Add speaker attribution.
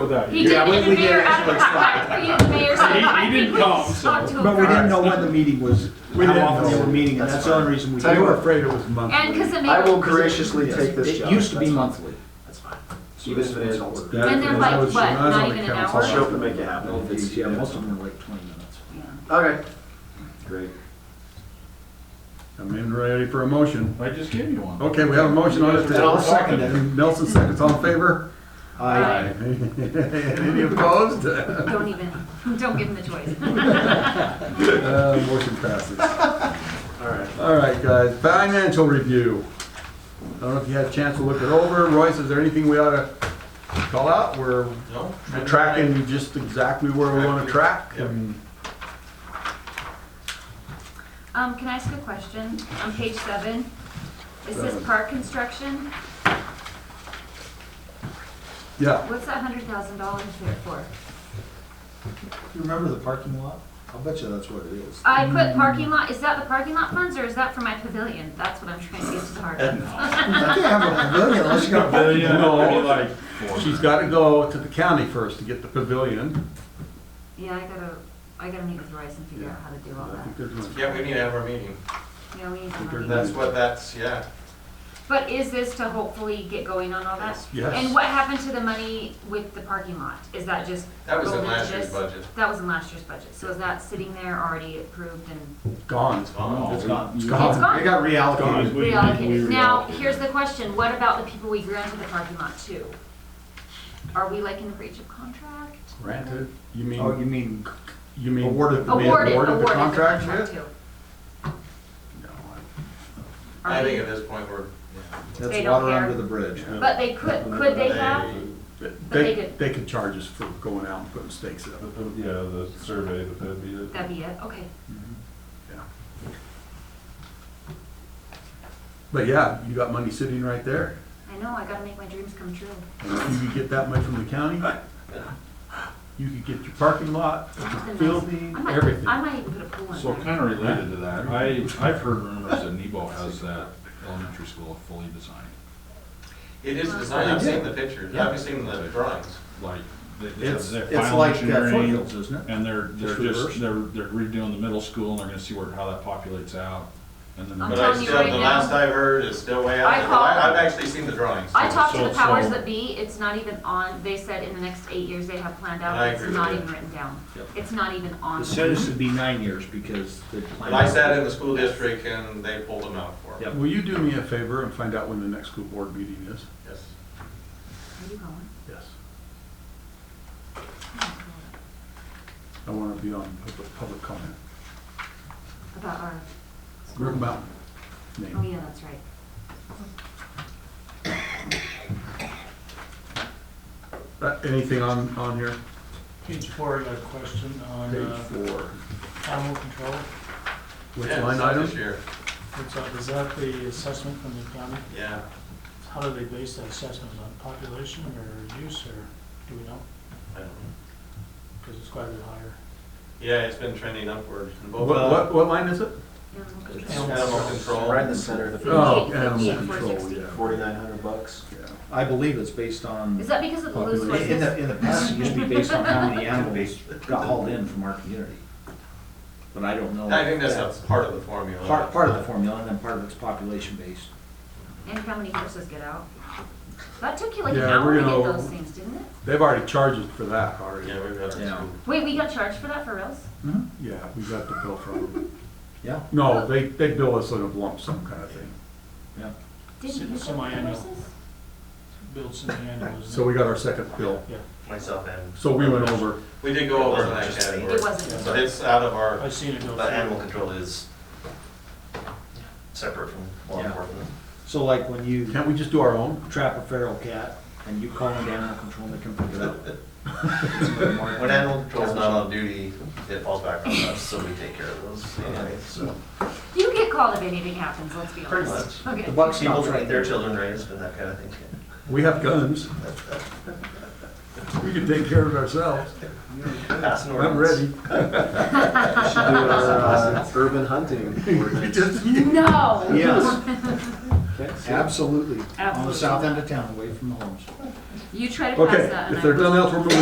Speaker 1: with that.
Speaker 2: He
Speaker 1: You-
Speaker 3: Yeah,
Speaker 2: did,
Speaker 3: we-
Speaker 2: and the
Speaker 3: we did
Speaker 2: mayor,
Speaker 3: ask for it twice.
Speaker 2: I- I- he- the mayor said,
Speaker 1: He- he
Speaker 2: I
Speaker 1: didn't
Speaker 2: think we
Speaker 1: come,
Speaker 2: just ought
Speaker 1: so-
Speaker 2: to
Speaker 3: But we
Speaker 2: approve.
Speaker 3: didn't know when the meeting was,
Speaker 1: We
Speaker 3: how
Speaker 1: didn't
Speaker 3: often they
Speaker 1: know.
Speaker 3: were meeting, and That's that's the only fine.
Speaker 1: So
Speaker 3: reason we.
Speaker 1: They
Speaker 3: do
Speaker 1: were
Speaker 3: it.
Speaker 1: afraid it was monthly.
Speaker 2: And because the
Speaker 3: I will
Speaker 2: mayor,
Speaker 3: graciously
Speaker 4: Yes,
Speaker 3: take this job.
Speaker 4: It used to be
Speaker 3: That's fine.
Speaker 4: monthly.
Speaker 3: That's fine.
Speaker 4: Even if it is
Speaker 3: I'll-
Speaker 1: Yeah,
Speaker 2: And they're
Speaker 1: when I
Speaker 2: like,
Speaker 1: was-
Speaker 2: what,
Speaker 1: when I was
Speaker 2: not
Speaker 1: on the
Speaker 2: even an
Speaker 1: council,
Speaker 2: hour?
Speaker 4: I'll show up and make it happen.
Speaker 3: No,
Speaker 4: if it's-
Speaker 3: it's- Yeah, most of them are like twenty minutes.
Speaker 4: Okay. Great.
Speaker 5: I'm in ready for a motion.
Speaker 1: I just gave you
Speaker 3: Oh,
Speaker 1: one.
Speaker 5: Okay, we have a motion on
Speaker 4: And I'll
Speaker 5: it.
Speaker 4: second it.
Speaker 5: Nelson seconds, all in favor?
Speaker 4: I,
Speaker 5: Any opposed? Uh,
Speaker 2: don't even, don't give him the choice.
Speaker 5: Uh, Motion passes.
Speaker 4: all right.
Speaker 5: All right, guys, financial review. I don't know if you had a chance to look it over. Royce, is there anything we ought to call out? We're
Speaker 6: No?
Speaker 5: we're tracking just exactly where we want to track and
Speaker 2: Um, can I ask a question? On page seven, it says park construction,
Speaker 5: Yeah,
Speaker 2: what's that hundred thousand dollars there for?
Speaker 3: You remember the parking lot? I'll bet you that's what it is.
Speaker 2: I put parking lot, is that the parking lot funds or is that for my pavilion? That's what I'm trying to get to the heart of.
Speaker 3: I can't have a pavilion unless you got a
Speaker 7: Uh,
Speaker 3: parking
Speaker 1: Pavilion,
Speaker 3: lot.
Speaker 1: I mean, like,
Speaker 5: she's got to go to the county first to get the pavilion.
Speaker 2: Yeah, I gotta, I gotta meet with Royce and figure out how to do all
Speaker 5: I think
Speaker 2: that.
Speaker 5: there's one.
Speaker 6: Yeah, we need to have our meeting.
Speaker 2: Yeah, we need
Speaker 5: think
Speaker 2: some money.
Speaker 6: That's what that's, yeah.
Speaker 2: But is this to hopefully get going on all that?
Speaker 5: Yes.
Speaker 2: And what happened to the money with the parking lot? Is that just?
Speaker 6: That was in
Speaker 2: rolled into
Speaker 6: last year's
Speaker 2: this?
Speaker 6: budget.
Speaker 2: That was in last year's budget, so is that sitting there already approved and
Speaker 5: Gone.
Speaker 6: Oh,
Speaker 1: no.
Speaker 3: It's gone.
Speaker 5: It's
Speaker 2: it's
Speaker 5: gone.
Speaker 2: gone?
Speaker 3: It got
Speaker 1: Gone.
Speaker 3: reallocated.
Speaker 1: We- we
Speaker 2: reallocated. Now,
Speaker 1: reallocated.
Speaker 2: here's the question, what about the people we granted the parking lot to? Are we like in breach of contract?
Speaker 5: Granted. You
Speaker 3: Oh, you
Speaker 5: mean,
Speaker 3: mean
Speaker 5: you mean.
Speaker 3: awarded the
Speaker 5: we
Speaker 3: bid?
Speaker 2: Awarded, awarded
Speaker 5: awarded the
Speaker 2: the
Speaker 5: contract
Speaker 2: contract to.
Speaker 5: No,
Speaker 2: Are
Speaker 6: I think
Speaker 2: we-
Speaker 6: at this point, we're,
Speaker 2: They
Speaker 3: That's
Speaker 2: don't
Speaker 3: water
Speaker 2: care.
Speaker 3: under the bridge.
Speaker 2: But they could, could they have?
Speaker 6: they,
Speaker 5: But
Speaker 2: they
Speaker 5: They,
Speaker 2: did.
Speaker 5: they could charge us for going out and putting stakes up.
Speaker 1: the- the- Yeah, the survey, but that'd be it.
Speaker 2: That'd be it, okay.
Speaker 5: But yeah, you got money sitting right there.
Speaker 2: I know, I gotta make my dreams come true.
Speaker 5: And if you could get that much from the county, you could get your parking lot, your building,
Speaker 2: I might,
Speaker 5: everything.
Speaker 2: I might even put a pool in
Speaker 7: So
Speaker 2: there.
Speaker 7: kind of related to that, I, I've heard rumors that Nebo has that elementary school fully designed.
Speaker 6: it is designed, I've seen the pictures, I've seen the drawings.
Speaker 7: Like, they- they have
Speaker 3: It's,
Speaker 7: their
Speaker 3: it's
Speaker 7: final
Speaker 3: like uh,
Speaker 7: engineering,
Speaker 3: foothills, isn't it?
Speaker 7: and they're, they're
Speaker 5: Just reverse.
Speaker 7: just, they're, they're redoing the middle school, and they're gonna see where, how that populates out. And then,
Speaker 2: I'm
Speaker 6: But
Speaker 7: the-
Speaker 6: I
Speaker 2: telling you
Speaker 6: still,
Speaker 2: right
Speaker 6: the
Speaker 2: now.
Speaker 6: last I heard is still way out
Speaker 2: I
Speaker 6: there.
Speaker 2: called-
Speaker 6: I- I've actually seen the drawings.
Speaker 2: I talked to
Speaker 7: So-
Speaker 2: the powers
Speaker 7: so-
Speaker 2: that be, it's not even on, they said in the next eight years they have planned out,
Speaker 6: And I
Speaker 2: it's
Speaker 6: agree with
Speaker 2: not
Speaker 6: you.
Speaker 2: even written down.
Speaker 7: Yep.
Speaker 2: It's not even on.
Speaker 3: It
Speaker 2: the-
Speaker 3: said it should be nine years because the.
Speaker 6: But I sat in the school district and they pulled them out for me.
Speaker 3: Yep.
Speaker 5: Will you do me a favor and find out when the next school board meeting is?
Speaker 6: Yes.
Speaker 2: Are you going?
Speaker 5: Yes. I want to be on public, public comment.
Speaker 2: About our,
Speaker 5: River Mountain
Speaker 2: oh
Speaker 5: name.
Speaker 2: yeah, that's right.
Speaker 5: Uh, Anything on, on here?
Speaker 8: Page four, I got a question on
Speaker 5: Page
Speaker 8: uh,
Speaker 5: four.
Speaker 8: animal control.
Speaker 5: Which
Speaker 6: Yeah,
Speaker 5: line
Speaker 6: it's up
Speaker 5: item?
Speaker 6: This year,
Speaker 8: It's, uh, Is that the assessment from the county?
Speaker 6: yeah.
Speaker 8: How do they base that assessment on population or use or do we know?
Speaker 6: I don't know.
Speaker 8: Because it's quite a bit higher.
Speaker 6: Yeah, it's been trending upward. And
Speaker 5: What,
Speaker 6: both-
Speaker 5: what, what line is it?
Speaker 2: Yeah, I'm going.
Speaker 6: Animal control.
Speaker 4: Right in the center of the
Speaker 2: Oh.
Speaker 4: field,
Speaker 2: yeah,
Speaker 5: uh, Animal control,
Speaker 2: 460.
Speaker 5: yeah.
Speaker 4: forty-nine hundred bucks.
Speaker 3: I believe it's based on,
Speaker 2: Is
Speaker 3: in
Speaker 2: that because of the loose
Speaker 5: Population.
Speaker 3: in
Speaker 2: horses?
Speaker 3: the, in the past, it used to be based on how many animals got hauled in from our community. But I don't know.
Speaker 6: I think that's a part of the formula.
Speaker 3: Part, part of the formula and then part of it's population based.
Speaker 2: And how many horses get out? That took you like an
Speaker 5: Yeah,
Speaker 2: hour
Speaker 5: we're
Speaker 2: to get
Speaker 5: gonna-
Speaker 2: those things, didn't it?
Speaker 5: They've already charged us for that already.
Speaker 6: Yeah, we've had it
Speaker 3: Yeah.
Speaker 6: too.
Speaker 2: Wait, we got charged for that for reals?
Speaker 5: Yeah, we got the bill from them.
Speaker 3: Yeah.
Speaker 5: No, they, they bill us in a lump sum kind of thing.
Speaker 2: Didn't you get
Speaker 8: Semi-annual.
Speaker 2: horses?
Speaker 8: Builds in the annual,
Speaker 5: So
Speaker 8: isn't it?
Speaker 5: we got our second bill.
Speaker 6: Myself and.
Speaker 5: So we went over.
Speaker 6: We did go over
Speaker 4: It
Speaker 6: in
Speaker 4: wasn't
Speaker 6: that
Speaker 4: just me.
Speaker 6: category.
Speaker 2: It wasn't.
Speaker 6: But it's out of our,
Speaker 8: I've seen it go
Speaker 4: But animal
Speaker 8: through.
Speaker 4: control is separate from law
Speaker 3: Yeah.
Speaker 4: enforcement.
Speaker 3: So like when you
Speaker 5: Can't we just do our own?
Speaker 3: trap a feral cat and you call them animal control, they can pick it up.
Speaker 4: When animal control's not on duty, it falls back on us, so we take care of those anyways, so.
Speaker 2: You get called if anything happens, let's be
Speaker 4: Pretty
Speaker 2: honest.
Speaker 3: The
Speaker 2: Okay.
Speaker 3: buck
Speaker 4: People
Speaker 3: stops
Speaker 4: trying to
Speaker 3: right
Speaker 4: get their
Speaker 3: there.
Speaker 4: children raised and that kind of thing.
Speaker 5: We have guns. We can take care of ourselves.
Speaker 4: Pass an
Speaker 5: I'm
Speaker 4: ordinance.
Speaker 5: ready.
Speaker 3: urban hunting.
Speaker 5: We just-
Speaker 2: No.
Speaker 3: Yes. Absolutely. On the
Speaker 2: Absolutely.
Speaker 3: south end of town, away from the homes.
Speaker 2: You try to pass that.
Speaker 5: Okay,
Speaker 2: and I
Speaker 5: if there's
Speaker 2: will.
Speaker 5: nothing else, we're moving